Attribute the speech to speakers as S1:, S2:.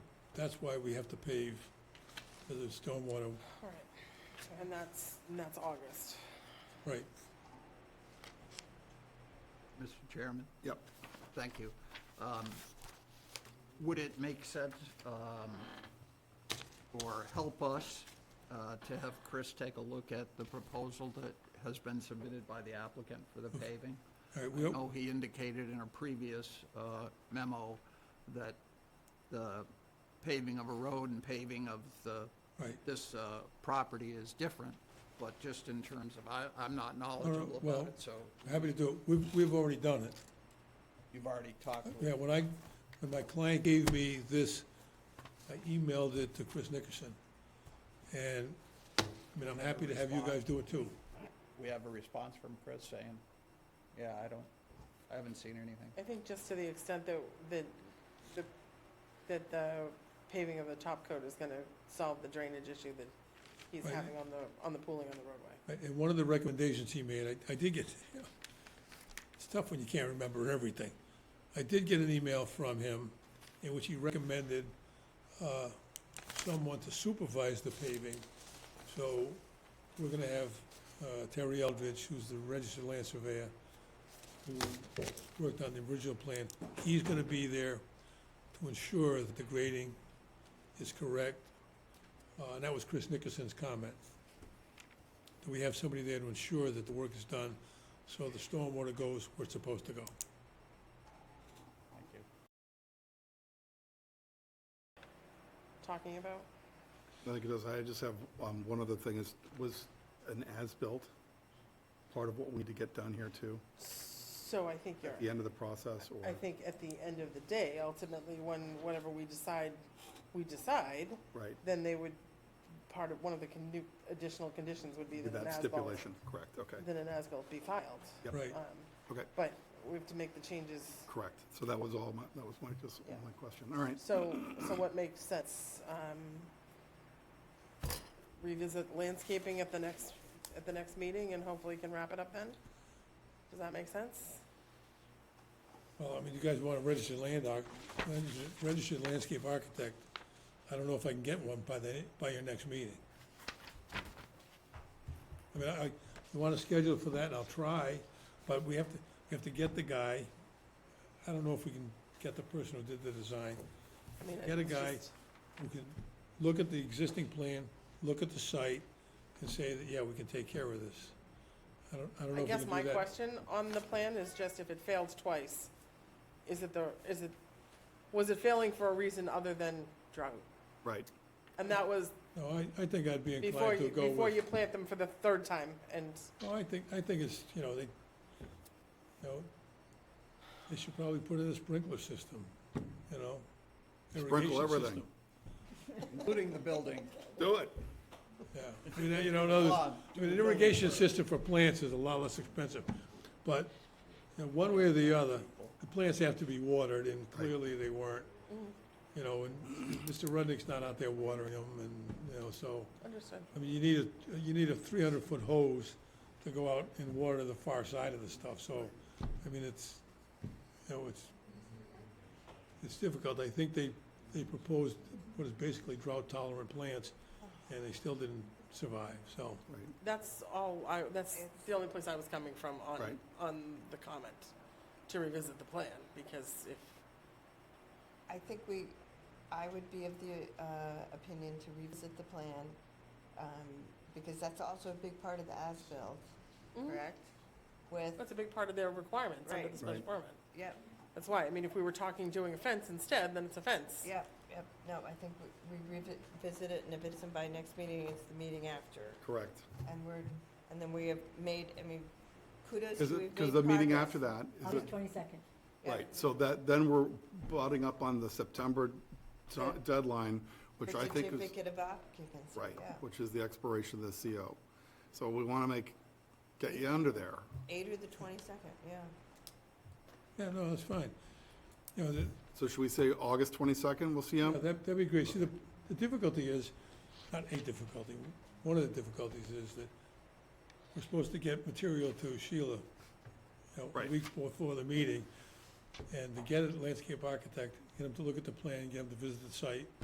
S1: That's why we have to pave for the stormwater,
S2: All right. And that's, and that's August.
S1: right.
S3: Mr. Chairman? Yep. Thank you. Um, Would it make sense um, or help us uh, to have Chris take a look at the proposal that has been submitted by the applicant for the paving?
S1: All right,
S3: I
S1: we'll,
S3: know he indicated in a previous uh, memo that the paving of a road and paving of the,
S1: right.
S3: this uh, property is different, but just in terms of, I, I'm not knowledgeable
S1: well-
S3: about it, so
S1: Happy to do it. We've, we've already done it.
S3: you've already talked with
S1: Yeah, when I, when my client gave me this, I emailed it to Chris Nickerson. And, I mean, I'm happy to have you guys do it too.
S3: We have a response from Chris saying, yeah, I don't, I haven't seen anything.
S2: I think just to the extent that, that, the- that the paving of the top coat is gonna solve the drainage issue that he's
S1: Right.
S2: having on the, on the pooling on the roadway.
S1: Right, And one of the recommendations he made, I, I did get, it's tough when you can't remember everything. I did get an email from him in which he recommended, uh, someone to supervise the paving. So we're gonna have, uh, Terry Eldridge, who's the registered land surveyor, who worked on the original plan, he's gonna be there to ensure that the grading is correct. Uh, and that was Chris Nickerson's comment that we have somebody there to ensure that the work is done, so the stormwater goes where it's supposed to go.
S3: Thank you.
S2: Talking about?
S4: I think it does. I just have, um, one other thing is, was an as-built part of what we need to get done here too?
S2: So I think you're,
S4: At the end of the process or?
S2: I think at the end of the day, ultimately, when, whatever we decide, we decide,
S4: Right,
S2: then they would, part of, one of the condu- additional conditions would be that an
S4: that
S2: as-built,
S4: stipulation, correct, okay,
S2: that an as-built be filed.
S4: Yep.
S1: Right,
S2: Um,
S4: okay,
S2: But we have to make the changes
S4: correct. So that was all my, that was my, just
S2: Yeah.
S4: my question. All right,
S2: So, so what makes sense? Um, Revisit landscaping at the next, at the next meeting and hopefully can wrap it up then? Does that make sense?
S1: well, I mean, you guys want a registered land arch, registered landscape architect. I don't know if I can get one by the, by your next meeting. I mean, I, you wanna schedule for that, and I'll try, but we have to, we have to get the guy. I don't know if we can get the person who did the design,
S2: I mean,
S1: Get a
S2: it's
S1: guy.
S2: just-
S1: we can look at the existing plan, look at the site, and say that, yeah, we can take care of this. I don't, I don't know if
S2: I
S1: we can
S2: guess
S1: do that.
S2: my question on the plan is just if it failed twice, is it the, is it, was it failing for a reason other than drought?
S4: right.
S2: And that was
S1: No, I, I think I'd be
S2: before
S1: inclined to
S2: you,
S1: go
S2: before you
S1: with,
S2: plant them for the third time and,
S1: well, I think, I think it's, you know, they, you know, they should probably put in a sprinkler system, you know? irrigation
S4: Sprinkle everything.
S1: system.
S3: Including the building.
S4: Do it.
S1: Yeah, I mean, you know, no, there's-
S3: Bob,
S1: I mean, an irrigation system for plants is a lot less expensive, but, you know, one way or the other, the plants have to be watered, and clearly they weren't. You know, and Mr. Rudnick's not out there watering them, and, you know, so,
S2: understood.
S1: I mean, you need a, you need a three hundred foot hose to go out and water the far side of the stuff, so, I mean, it's, you know, it's, it's difficult, I think they, they proposed what is basically drought tolerant plants, and they still didn't survive, so,
S2: That's all, I, that's the only place I was coming from on,
S4: Right.
S2: on the comment, to revisit the plan, because if,
S5: I think we, I would be of the uh, opinion to revisit the plan, um, because that's also a big part of the as-built, correct? With,
S2: that's a big part of their requirements under the
S5: Right.
S2: special
S4: Right.
S2: permit.
S5: yep,
S2: That's why, I mean, if we were talking doing a fence instead, then it's a fence.
S5: yep, yep, no, I think we- we revi- revisit it, and if it's not by next meeting, it's the meeting after.
S4: Correct.
S5: And we're, and then we have made, I mean, kudos,
S4: Because,
S5: we've made
S4: because the meeting
S5: progress.
S4: after that is,
S6: August
S4: it-
S6: twenty-second.
S5: Yeah.
S4: right, so that, then we're butting up on the September t-
S5: Yeah.
S4: deadline, which
S5: The
S4: I think is.
S5: Certificate of occupancy,
S4: Right,
S5: yeah.
S4: which is the expiration of the CO. So we want to make, get you under there.
S5: Eight or the twenty-second, yeah.
S1: yeah, no, that's fine. You know, the,
S4: So should we say August 22nd, we'll see him?
S1: Yeah, Uh, that, that'd be great. See, the, the difficulty is, not a difficulty, one of the difficulties is that we're supposed to get material to Sheila, you know, a
S4: Right.
S1: week before the meeting. And to get a landscape architect, get him to look at the plan, get him to visit the site,